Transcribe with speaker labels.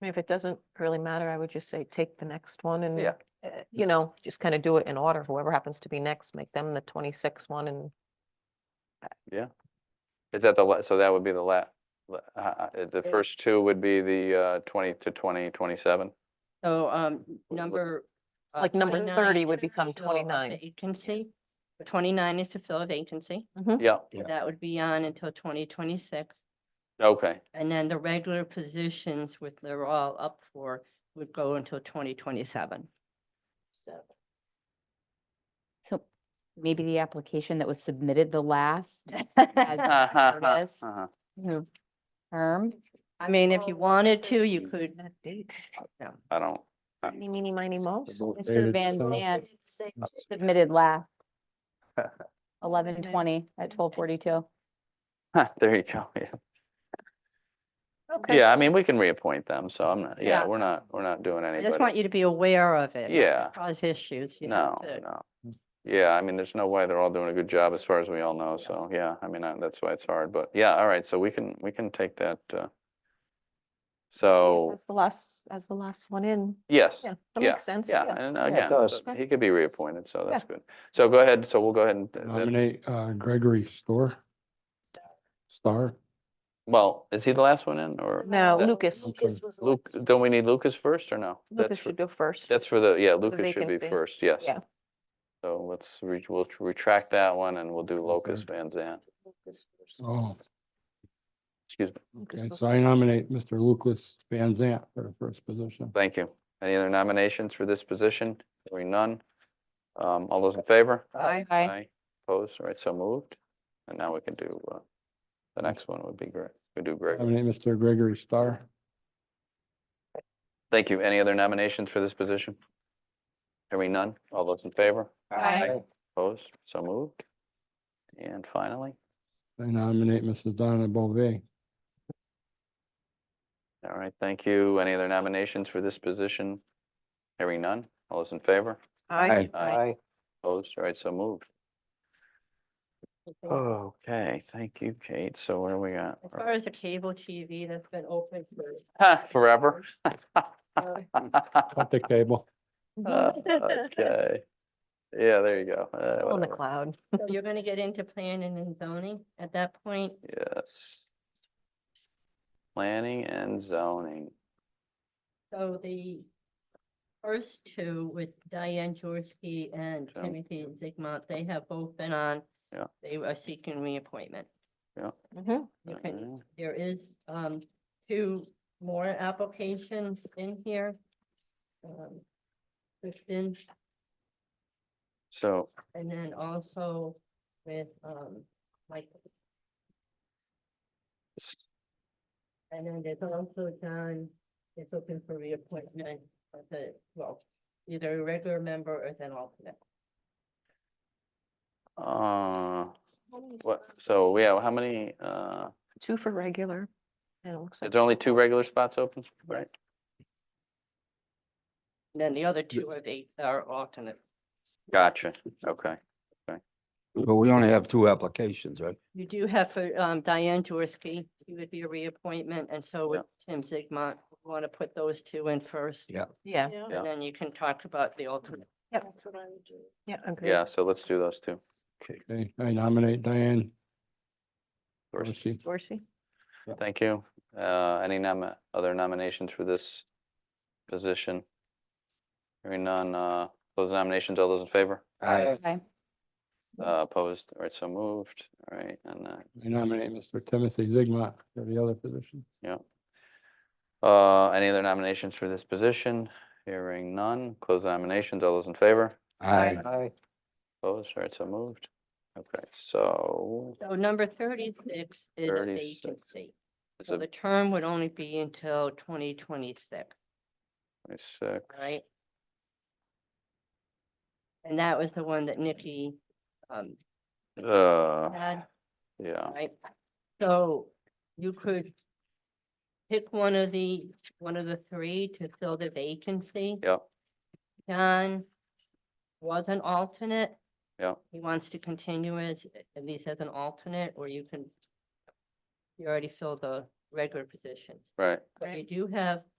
Speaker 1: mean, if it doesn't really matter, I would just say take the next one and.
Speaker 2: Yeah.
Speaker 1: uh, You know, just kind of do it in order, whoever happens to be next, make them the twenty-six one and
Speaker 2: Is that the, la- so that would be the la, la- uh, uh, the
Speaker 3: Yeah.
Speaker 2: first two would be the uh, twenty to twenty, twenty-seven?
Speaker 3: So, um, number. uh,
Speaker 1: like number
Speaker 3: 29
Speaker 1: thirty would become
Speaker 3: is to fill a
Speaker 1: twenty-nine.
Speaker 3: Vacancy, twenty-nine is to fill a vacancy,
Speaker 2: Yeah,
Speaker 4: Yeah.
Speaker 3: that would be on until twenty twenty-six.
Speaker 2: okay,
Speaker 3: And then the regular positions, which they're all up for, would go until twenty twenty-seven.
Speaker 5: So. So maybe the application that was submitted the last as Curtis.
Speaker 2: Uh-huh.
Speaker 5: you know, term.
Speaker 3: I mean, if you wanted to, you could,
Speaker 1: That date.
Speaker 3: no,
Speaker 2: I don't,
Speaker 1: Meeny, meeny, miny, mo.
Speaker 5: Mr. Van Nant submitted last. Eleven twenty at twelve forty-two.
Speaker 2: there you go, yeah.
Speaker 1: Okay.
Speaker 2: Yeah, I mean, we can reappoint them, so I'm not, yeah,
Speaker 3: Yeah.
Speaker 2: we're not, we're not doing
Speaker 3: I just want
Speaker 2: anybody.
Speaker 3: you to be aware of it. not to
Speaker 2: Yeah.
Speaker 3: Cause issues, you know.
Speaker 2: No,
Speaker 3: to-
Speaker 2: no. Yeah, I mean, there's no way they're all doing a good job as far as we all know,
Speaker 3: Yeah.
Speaker 2: so, yeah, I mean, uh, that's why it's hard, but, yeah, all right, so we can, we can take that, uh. So,
Speaker 1: As the last, as the last one in.
Speaker 2: yes.
Speaker 1: Yeah, that
Speaker 2: Yeah,
Speaker 1: makes sense.
Speaker 2: Yeah, and
Speaker 4: it
Speaker 2: again,
Speaker 4: does.
Speaker 2: so he could be reappointed, so
Speaker 1: Yeah.
Speaker 2: that's good. So go ahead, so we'll go ahead and, uh, then-
Speaker 4: Nominate uh, Gregory Store. Star,
Speaker 2: well, is he the last one in or?
Speaker 1: Now,
Speaker 2: that-
Speaker 1: Lucas,
Speaker 4: Lucas
Speaker 5: was.
Speaker 2: Luke, don't we need Lucas first or no?
Speaker 1: Lucas
Speaker 2: That's for-
Speaker 1: should go first.
Speaker 2: That's for the, yeah,
Speaker 1: the
Speaker 2: Lucas should be
Speaker 1: vacancy.
Speaker 2: first, yes.
Speaker 1: Yeah.
Speaker 2: So let's, re- we'll tr- retract that one and we'll do Locus Van Zant.
Speaker 4: oh,
Speaker 2: Excuse me,
Speaker 1: Lucas
Speaker 4: okay,
Speaker 1: goes
Speaker 4: so I nominate Mr. Lucas Van Zant for the first position.
Speaker 2: thank you. Any other nominations for this position? Hearing none. Um, all those in favor?
Speaker 1: Aye.
Speaker 5: Aye.
Speaker 2: Opposed, all right, so moved. And now we can do, uh, the next one would be Greg, we do Greg.
Speaker 4: Nominate Mr. Gregory Star.
Speaker 2: Thank you. Any other nominations for this position? Hearing none. All those in favor?
Speaker 5: Aye.
Speaker 2: Opposed? So moved. And finally,
Speaker 4: I nominate Mrs. Donna Bovee.
Speaker 2: all right, thank you. Any other nominations for this position? Hearing none. All those in favor?
Speaker 1: Aye.
Speaker 2: Aye. Opposed? All right, so moved. Okay, thank you, Kate. So what do we got?
Speaker 3: As far as the cable TV that's been open for
Speaker 2: Ha, Forever?
Speaker 4: Cut the cable.
Speaker 1: Mm-hmm.
Speaker 2: Uh, Okay. Yeah, there you go. Uh,
Speaker 1: On the
Speaker 2: whatever.
Speaker 1: cloud.
Speaker 3: So you're gonna get into planning and zoning at that point,
Speaker 2: Yes. Planning and zoning.
Speaker 3: so the first two with Diane Jorski and
Speaker 2: Yeah.
Speaker 3: Timothy Zigmont, they have both been on.
Speaker 2: Yeah.
Speaker 3: They are seeking reappointment.
Speaker 1: Mhm.
Speaker 3: You can-
Speaker 2: Mhm.
Speaker 3: There is, um, two more applications in here. Um, Kristen,
Speaker 2: So,
Speaker 3: and then also with, um, Mike.
Speaker 2: s-
Speaker 3: And then there's also John is looking for reappointment of the, well, either a regular member or as an alternate.
Speaker 2: uh, What, so, yeah, how many, uh,
Speaker 1: Two for regular. And it looks
Speaker 2: is
Speaker 1: like.
Speaker 2: there only two regular spots open, right?
Speaker 3: And Then the other two are the, are alternate.
Speaker 2: Gotcha, okay.
Speaker 6: But we only have two applications, right?
Speaker 3: You do have for um, Diane Jaworski, he would be a reappointment, and so would Tim Zigmont. Want to put those two in first?
Speaker 6: Yeah.
Speaker 1: Yeah,
Speaker 2: Yeah.
Speaker 3: And then you can talk about the alternate.
Speaker 1: yeah, agree.
Speaker 2: Yeah, so let's do those two.
Speaker 4: Okay, I nominate Diane
Speaker 2: first.
Speaker 4: Dorsey.
Speaker 1: Dorsey?
Speaker 2: Thank you. Uh, any nom, other nominations for this position? Hearing none, uh, those nominations, all those in favor?
Speaker 6: Aye.
Speaker 5: Aye.
Speaker 2: Uh, opposed, all right, so moved, all right, and, uh,
Speaker 4: I nominate Mr. Timothy Zigmont for the other position.
Speaker 2: yeah. Uh, any other nominations for this position? Hearing none, close the nominations, all those in favor?
Speaker 6: Aye.
Speaker 2: Opposed, all right, so moved. Okay, so
Speaker 3: So number thirty-six is a
Speaker 2: 36.
Speaker 3: vacancy.
Speaker 2: it's
Speaker 3: So
Speaker 2: a
Speaker 3: the term would only be until twenty twenty-six,
Speaker 2: twenty-six,
Speaker 3: right? And that was the one that Nikki um
Speaker 2: uh,
Speaker 3: had,
Speaker 2: yeah,
Speaker 3: right? So you could pick one of the, one of the three to fill the vacancy.
Speaker 2: yeah,
Speaker 3: John was an alternate.
Speaker 2: yeah,
Speaker 3: He wants to continue as, at least as an alternate, or you can, you already fill the regular position.
Speaker 2: right.
Speaker 3: But you do have